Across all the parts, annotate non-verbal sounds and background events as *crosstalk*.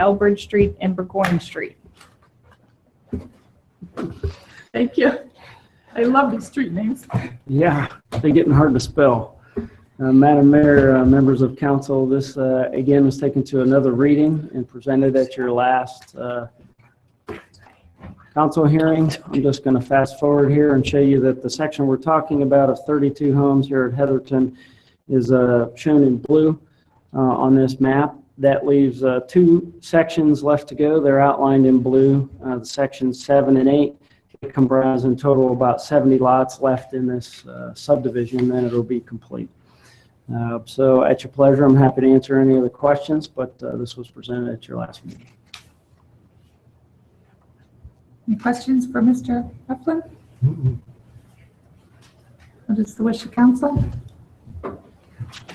Elbridge Street and Burgoyne Street. Thank you. I love these street names. Yeah, they're getting hard to spell. Uh, Madam Mayor, uh, members of council, this uh, again was taken to another reading and presented at your last uh, council hearing. I'm just going to fast forward here and show you that the section we're talking about of 32 homes here at Heatherton is uh, shown in blue uh, on this map. That leaves uh, two sections left to go. They're outlined in blue, uh, sections seven and eight comprise in total about 70 lots left in this uh, subdivision, then it'll be complete. Uh, So at your pleasure, I'm happy to answer any of the questions, but uh, this was presented at your last meeting. Any questions for Mr. Heflin? What is the wish of council?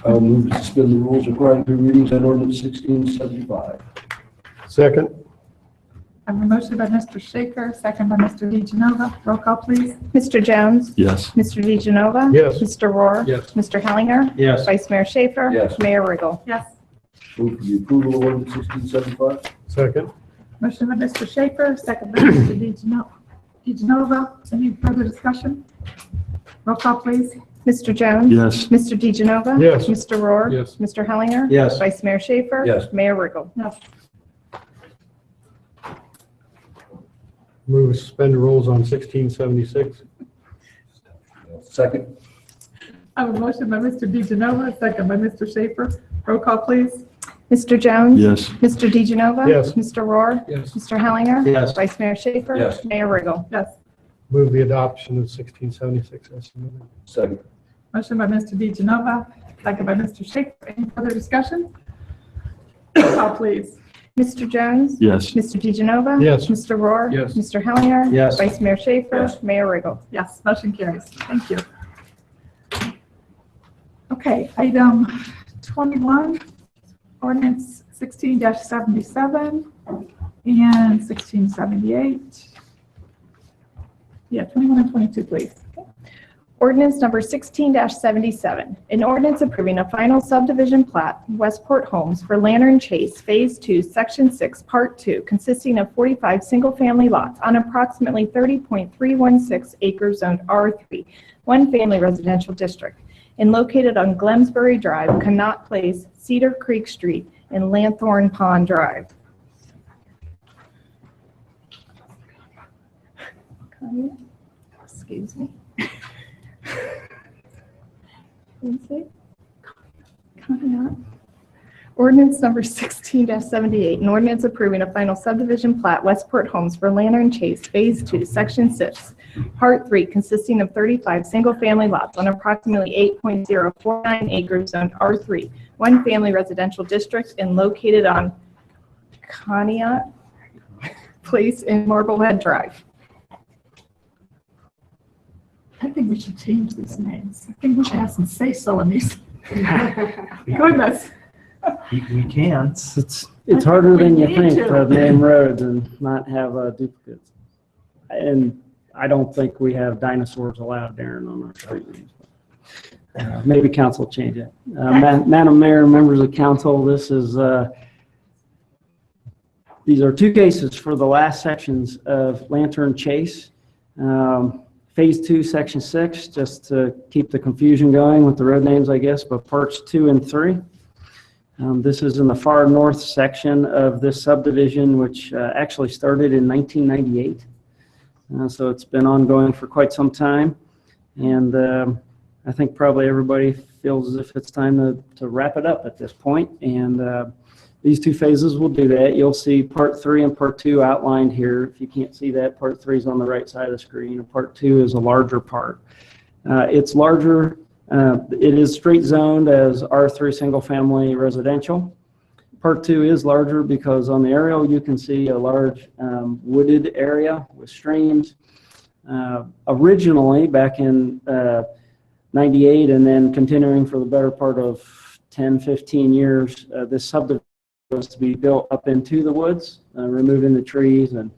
I'll move to suspend the rules requiring three readings on ordinance sixteen seventy-five. Second? I have a motion by Mr. Shaker, second by Mr. DeGenova. Roll call, please. Mr. Jones? Yes. Mr. DeGenova? Yes. Mr. Rohr? Yes. Mr. Hellinger? Yes. Vice Mayor Schaefer? Yes. Mayor Riggle? Yes. Move for the approval of ordinance sixteen seventy-five. Second? Motion by Mr. Shaker, second by Mr. DeGeno- DeGenova. Any further discussion? Roll call, please. Mr. Jones? Yes. Mr. DeGenova? Yes. Mr. Rohr? Yes. Mr. Hellinger? Yes. Vice Mayor Schaefer? Yes. Mayor Riggle? Yes. Move to suspend the rules on 1676. Second. I have a motion by Mr. DeGenova, second by Mr. Shaker. Roll call, please. Mr. Jones? Yes. Mr. DeGenova? Yes. Mr. Rohr? Yes. Mr. Hellinger? Yes. Vice Mayor Schaefer? Yes. Mayor Riggle? Yes. Move the adoption of 1676 as amended. Second. Motion by Mr. DeGenova, second by Mr. Shaker. Any further discussion? Roll call, please. Mr. Jones? Yes. Mr. DeGenova? Yes. Mr. Rohr? Yes. Mr. Hellinger? Yes. Vice Mayor Schaefer? Yes. Mayor Riggle? Yes, motion carries. Thank you. Okay, item 21, ordinance 16-77 and 1678. Yeah, 21 and 22, please. Ordinance number 16-77, an ordinance approving a final subdivision plat, Westport Homes for Lantern Chase Phase 2, Section 6, Part 2, consisting of 45 single-family lots on approximately 30.316 acres zoned R3, one family residential district, and located on Glemsbury Drive, Connaught Place, Cedar Creek Street, and Lanthorn Pond Drive. Comment? Excuse me. Lindsay? Coming up. Ordinance number 16-78, an ordinance approving a final subdivision plat, Westport Homes for Lantern Chase, Phase 2, Section 6, Part 3, consisting of 35 single-family lots on approximately 8.049 acres zoned R3, one family residential district and located on Conneaut Place in Marblehead Drive. I think we should change these names. I think we should have some say-so in these. *laughs* Goodness. We can. It's, it's harder than you We need think to. to name roads and not have uh, duplicates. And I don't think we have dinosaurs allowed, Darren, on our street names. Uh, Maybe council change it. Uh, Ma- Madam Mayor, members of council, this is, uh, these are two cases for the last sections of Lantern Chase. Um, Phase two, section six, just to keep the confusion going with the road names, I guess, but parts two and three. Um, This is in the far north section of this subdivision, which uh, actually started in 1998. Uh, So it's been ongoing for quite some time. And um, I think probably everybody feels as if it's time to to wrap it up at this point. And uh, these two phases will do that. You'll see Part 3 and Part 2 outlined here. If you can't see that, Part 3 is on the right side of the screen, and Part 2 is a larger part. Uh, It's larger, uh, it is straight zoned as R3 Single Family Residential. Part 2 is larger because on the aerial, you can see a large um, wooded area with streams. Uh, Originally, back in uh, 98, and then continuing for the better part of 10, 15 years, uh, this subdivision was to be built up into the woods, uh, removing the trees, and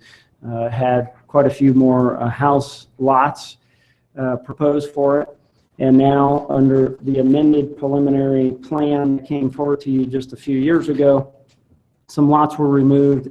uh, had quite a few more uh, house lots uh, proposed for it. And now, under the amended preliminary plan that came forward to you just a few years ago, some lots were removed